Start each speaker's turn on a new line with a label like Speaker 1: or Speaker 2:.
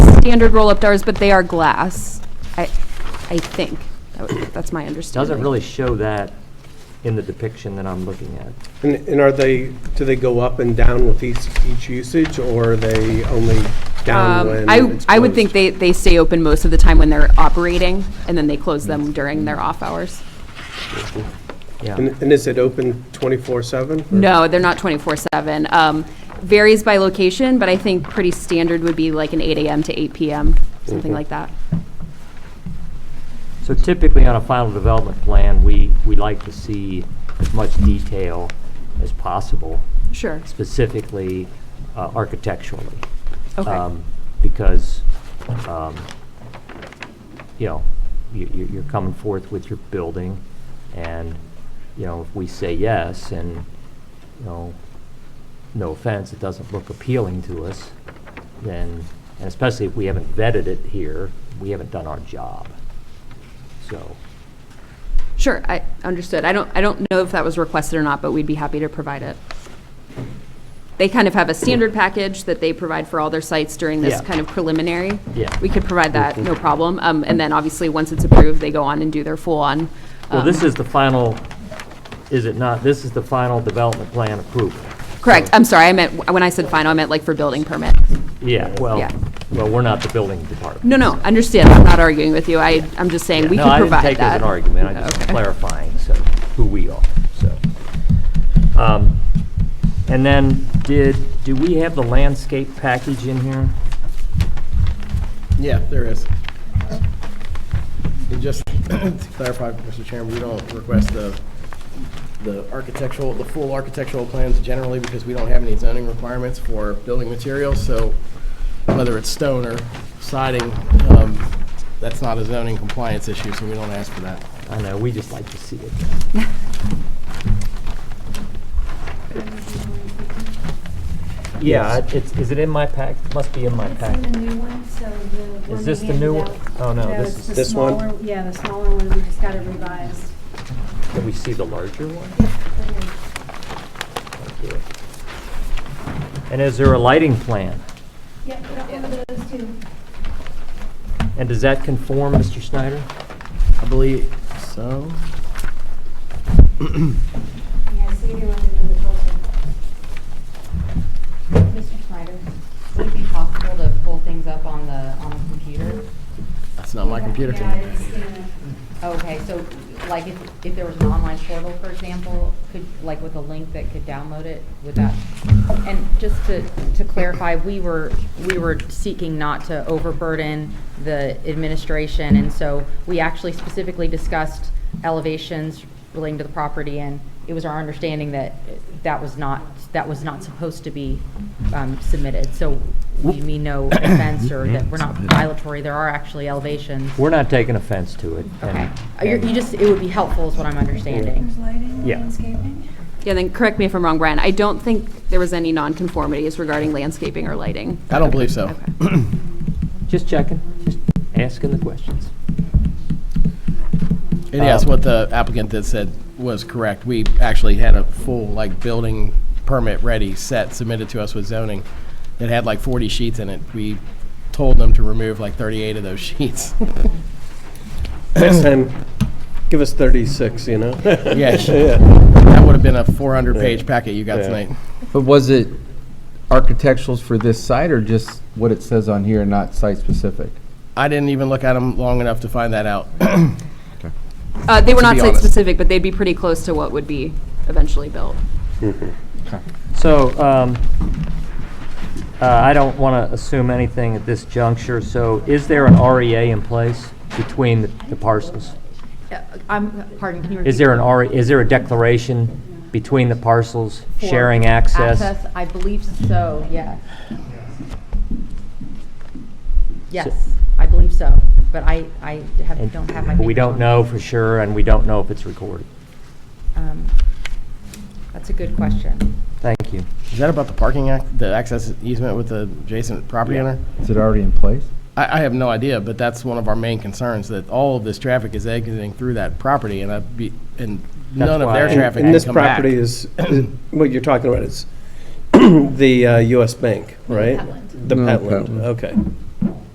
Speaker 1: standard roll-up doors, but they are glass, I, I think. That would- That's my understanding.
Speaker 2: Doesn't really show that in the depiction that I'm looking at.
Speaker 3: And, and are they, do they go up and down with each, each usage, or are they only down
Speaker 1: Um,
Speaker 3: when
Speaker 1: I,
Speaker 3: it's
Speaker 1: I would think
Speaker 3: closed?
Speaker 1: they, they stay open most of the time when they're operating, and then they close them during their off hours.
Speaker 2: Yeah,
Speaker 3: And, and is it open twenty-four seven?
Speaker 1: No, they're not 24/7. Um, Varies by location, but I think pretty standard would be like an 8 AM to 8 PM, something like that.
Speaker 2: so typically on a final development plan, we, we like to see as much detail as possible,
Speaker 1: Sure.
Speaker 2: specifically uh, architecturally.
Speaker 1: Okay.
Speaker 2: um, Because, um, you know, you- you- you're coming forth with your building, and, you know, if we say yes, and, you know, no offense, it doesn't look appealing to us, then, and especially if we haven't vetted it here, we haven't done our job. So,
Speaker 1: Sure, I understood. I don't, I don't know if that was requested or not, but we'd be happy to provide it. They kind of have a standard package that they provide for all their sites during this
Speaker 2: Yeah.
Speaker 1: kind of preliminary.
Speaker 2: Yeah. Mm-hmm.
Speaker 1: We could provide that, no problem. Um, And then obviously, once it's approved, they go on and do their full-on.
Speaker 2: well, this
Speaker 1: um,
Speaker 2: is the final, is it not, this is the final development plan approval?
Speaker 1: Correct, I'm sorry, I meant, when I said final, I meant like for building permit.
Speaker 2: Yeah, well,
Speaker 1: Yeah.
Speaker 2: well, we're not the building department.
Speaker 1: No, no, understand, I'm not arguing with you. I, I'm just saying, we
Speaker 2: Yeah,
Speaker 1: could provide that.
Speaker 2: No, I didn't take it as an argument, I just
Speaker 1: Okay.
Speaker 2: clarifying, so, who we are, so. Um, And then, did, do we have the landscape package in here?
Speaker 4: Yeah, there is. And just to clarify, Mr. Chairman, we don't request the, the architectural, the full architectural plans generally because we don't have any zoning requirements for building materials, so whether it's stone or siding, um, that's not a zoning compliance issue, so we don't ask for that.
Speaker 2: I know, we just like to see it. Yeah,
Speaker 4: Yes.
Speaker 2: it's, is it in my pack, must be in my
Speaker 5: It's
Speaker 2: pack.
Speaker 5: in the new one, so the one
Speaker 2: Is this
Speaker 5: we
Speaker 2: the new
Speaker 5: handed
Speaker 2: one?
Speaker 5: out-
Speaker 2: Oh, no, this
Speaker 5: it's
Speaker 2: is-
Speaker 5: the
Speaker 3: This one?
Speaker 5: smaller- Yeah, the smaller one, we just got it revised.
Speaker 2: Can we see the larger one? Thank you. And is there a lighting plan?
Speaker 5: Yep, we got one of those two.
Speaker 2: And does that conform, Mr. Snyder?
Speaker 4: I believe so.
Speaker 2: Oh.
Speaker 5: Yeah, so you want to do the filter. Mr. Snyder?
Speaker 6: Would it be possible to pull things up on the, on the computer?
Speaker 4: That's not my computer
Speaker 5: Yeah,
Speaker 4: tonight.
Speaker 5: it's in
Speaker 6: Okay, so like if, if there was an online portal, for example, could, like with a link that could download it, would that? And just to, to clarify, we were, we were seeking not to overburden the administration. And so we actually specifically discussed elevations relating to the property. And it was our understanding that that was not, that was not supposed to be um, submitted. So we mean no offense or that we're not violatory. There are actually elevations.
Speaker 2: We're not taking offense to it. and-
Speaker 6: Okay. Uh, you're- You just, it would be helpful is what I'm understanding.
Speaker 5: There's lighting,
Speaker 2: Yeah.
Speaker 5: landscaping.
Speaker 1: Yeah, then correct me if I'm wrong, Brian, I don't think there was any nonconformities regarding landscaping or lighting.
Speaker 4: I don't believe so.
Speaker 2: Just checking, just asking the questions.
Speaker 4: And yes,
Speaker 2: Um,
Speaker 4: what the applicant that said was correct. We actually had a full, like, building permit ready set submitted to us with zoning that had like 40 sheets in it. We told them to remove like 38 of those sheets.
Speaker 3: Next time, give us thirty-six, you know?
Speaker 4: Yeah, that would have been a 400-page packet you got
Speaker 3: Yeah.
Speaker 4: tonight.
Speaker 7: But was it architecturals for this site or just what it says on here and not site-specific?
Speaker 4: I didn't even look at them long enough to find that out.
Speaker 1: Uh, They were
Speaker 4: To
Speaker 1: not
Speaker 4: be honest.
Speaker 1: site-specific, but they'd be pretty close to what would be eventually built.
Speaker 2: So, um, uh, I don't want to assume anything at this juncture, so is there an REA in place between the- the parcels?
Speaker 6: Uh, I'm, pardon, can you repeat?
Speaker 2: Is there an RE, is there a declaration between the parcels
Speaker 6: For
Speaker 2: sharing access?
Speaker 6: I believe so, yes. Yes, I believe so, but I, I have,
Speaker 2: And-
Speaker 6: don't have my.
Speaker 2: But we
Speaker 6: papers
Speaker 2: don't
Speaker 6: on
Speaker 2: know
Speaker 6: me.
Speaker 2: for sure, and we don't know if it's recorded.
Speaker 6: Um, That's a good question.
Speaker 2: Thank you.
Speaker 4: Is that about the parking act, the access easement with the adjacent property owner?
Speaker 7: Is it already in place?
Speaker 4: I, I have no idea, but that's one of our main concerns, that all of this traffic is exiting through that property, and I'd be, and none of
Speaker 2: why-
Speaker 4: their
Speaker 2: And-
Speaker 4: traffic
Speaker 3: And
Speaker 4: can
Speaker 3: this
Speaker 4: come back.
Speaker 3: property is, is- what you're talking about is the uh, US Bank, right? The
Speaker 7: No,
Speaker 3: Petland,
Speaker 7: Petland.
Speaker 3: okay.